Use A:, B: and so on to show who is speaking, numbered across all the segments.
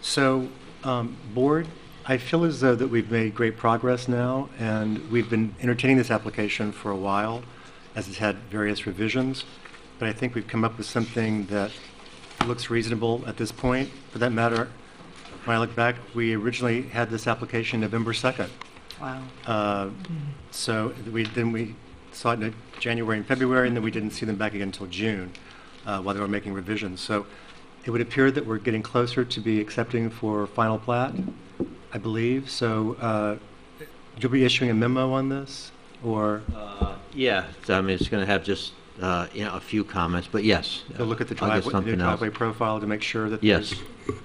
A: So, um, Board, I feel as though that we've made great progress now, and we've been entertaining this application for a while, as it's had various revisions, but I think we've come up with something that looks reasonable at this point. For that matter, when I look back, we originally had this application November 2nd.
B: Wow.
A: Uh, So we, then we saw it in January and February, and then we didn't see them back again until June uh, while they were making revisions. So it would appear that we're getting closer to be accepting for final plat, I believe. So uh, you'll be issuing a memo on this, or
C: Uh, Yeah, so, I mean, it's going to have just, uh, you know, a few comments, but yes.
A: you'll look at the driveway,
C: I'll get
A: the new
C: something else.
A: driveway profile to make sure that there's...
C: Yes,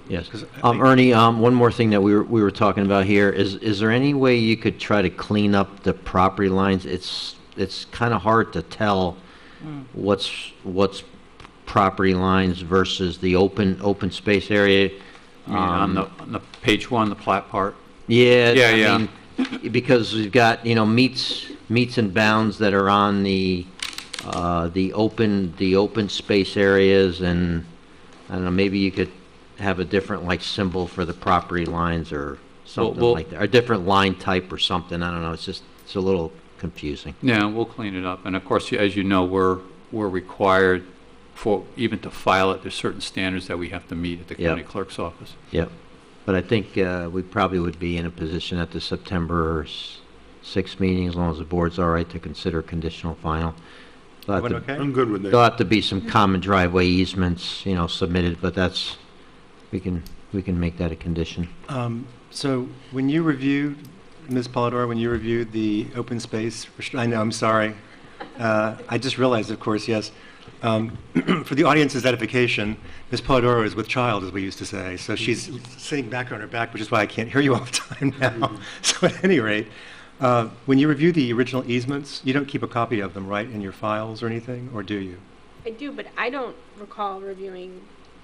C: yes.
A: 'Cause I
C: Um,
A: think-
C: Ernie, um, one more thing that we were, we were talking about here, is, is there any way you could try to clean up the property lines? It's, it's kind of hard to tell
D: Hmm.
C: what's, what's property lines versus the open, open space area.
D: I mean, on
C: Um,
D: the, on the page one, the plat part?
C: Yeah.
D: Yeah,
C: I
D: yeah.
C: mean, Because we've got, you know, meets, meets and bounds that are on the, uh, the open, the open space areas and, I don't know, maybe you could have a different like symbol for the property lines or something
D: well-
C: like that, or a different line type or something, I don't know, it's just, it's a little confusing.
D: No, we'll clean it up. And of course, as you know, we're, we're required for, even to file it, there's certain standards that we have to meet at the
C: Yeah.
D: county clerk's office.
C: Yep. But I think, uh, we probably would be in a position at the September s- sixth meeting, as long as the board's all right to consider conditional final. But
A: Everyone
C: the-
A: okay?
E: I'm good with
C: There'll
E: that.
C: have to be some common driveway easements, you know, submitted, but that's, we can, we can make that a condition.
A: Um, So when you reviewed, Ms. Polidori, when you reviewed the open space, restri- I know, I'm sorry. Uh, I just realized, of course, yes. Um, For the audience's edification, Ms. Polidori is with child, as we used to say. So she's sitting back on her back, which is why I can't hear you all the time now. So at any rate, uh, when you review the original easements, you don't keep a copy of them, right, in your files or anything, or do you?
F: I do, but I don't recall reviewing,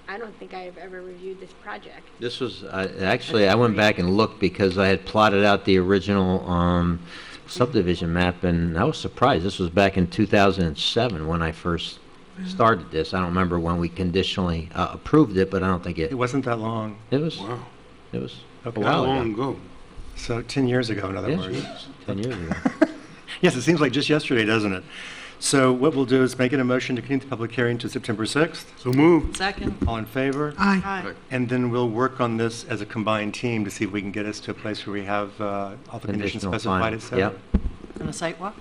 F: I don't think I have ever reviewed this project.
C: This was, I- actually, I went back and looked because I had plotted out the original um, subdivision map, and I was surprised. This was back in 2007 when I first started this. I don't remember when we conditionally uh, approved it, but I don't think it,
A: It wasn't that long,
C: it was,
E: Wow,
C: it was a
A: Okay.
E: how
C: while
E: long
C: ago.
E: ago?
A: so 10 years ago, in other
C: Yes,
A: words.
C: yes, 10 years ago.
A: Yes, it seems like just yesterday, doesn't it? So what we'll do is make it a motion to continue the public hearing to September 6th.
E: So moved.
B: Second.
A: All in favor?
B: Aye.
A: And then we'll work on this as a combined team to see if we can get us to a place where we have uh, all the conditions
C: Conditional
A: specified,
C: final,
A: et cetera.
C: yep.
B: And a site walk?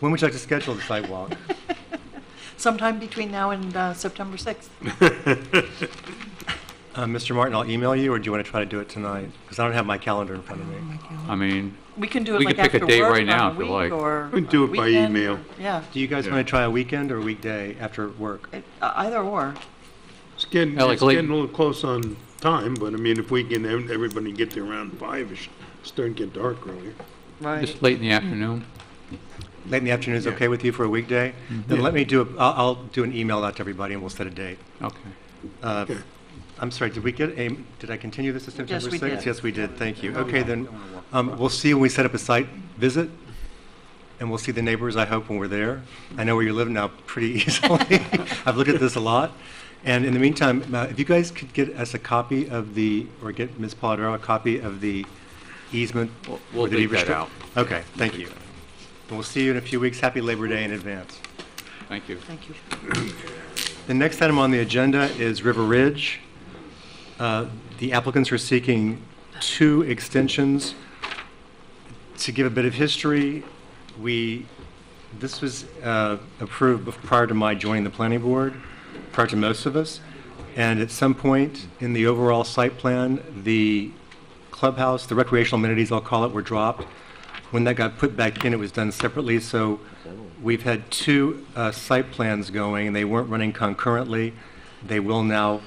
A: When would you like to schedule the sidewalk?
B: Sometime between now and uh, September 6th.
A: Uh, Mr. Martin, I'll email you, or do you want to try to do it tonight? Because I don't have my calendar in front of me.
D: I mean,
B: We can do it
D: We
B: like
D: could pick a
B: after
D: date
B: work
D: right
B: on
D: now
B: a
D: if you
B: week
D: like.
B: or
E: We can do it by
B: weekend.
E: email.
B: Yeah,
A: Do you guys
D: Yeah.
A: want to try a weekend or a weekday after work?
B: It- uh, either or.
E: It's getting,
D: Yeah, like
E: it's
D: late-
E: getting a little close on time, but I mean, if we can, ev- everybody get there around five-ish, it's starting to get dark earlier.
D: just late in the afternoon.
A: Late in the afternoon is
E: Yeah.
A: okay with you for a weekday? Then
E: Yeah.
A: let me do, a- I'll I'll do an email out to everybody, and we'll set a date.
D: Okay.
A: Uh, I'm sorry, did we get a, did I continue this to September 6th?
B: we did.
A: Yes, we did, thank you. Okay, then, um, we'll see when we set up a site visit, and we'll see the neighbors, I hope, when we're there. I know where you live now pretty easily. I've looked at this a lot. And in the meantime, uh, if you guys could get us a copy of the, or get Ms. Polidoro a copy of the easement.
D: We'll- we'll
A: or the deed
D: leave that
A: restrict-
D: out.
A: Okay, thank you. And we'll see you in a few weeks. Happy Labor Day in advance.
D: Thank you.
B: Thank you.
A: The next item on the agenda is River Ridge. Uh, The applicants are seeking two extensions. To give a bit of history, we, this was uh, approved bef- prior to my joining the planning board, prior to most of us. And at some point in the overall site plan, the clubhouse, the recreational amenities, I'll call it, were dropped. When that got put back in, it was done separately, so we've had two uh, site plans going, and they weren't running concurrently. They will now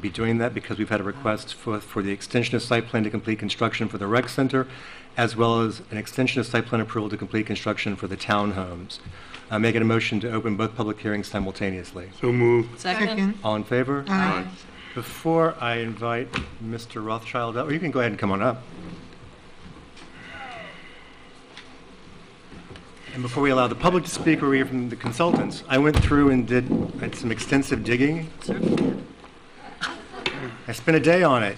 A: be doing that because we've had a request for, for the extension of site plan to complete construction for the rec center, as well as an extension of site plan approval to complete construction for the townhomes. I'm making a motion to open both public hearings simultaneously.
E: So moved.
B: Second?
A: All in favor?
B: Aye.
A: Before I invite Mr. Rothschild up, or you can go ahead and come on up. And before we allow the public to speak or we hear from the consultants, I went through and did, did some extensive digging. I spent a day on it.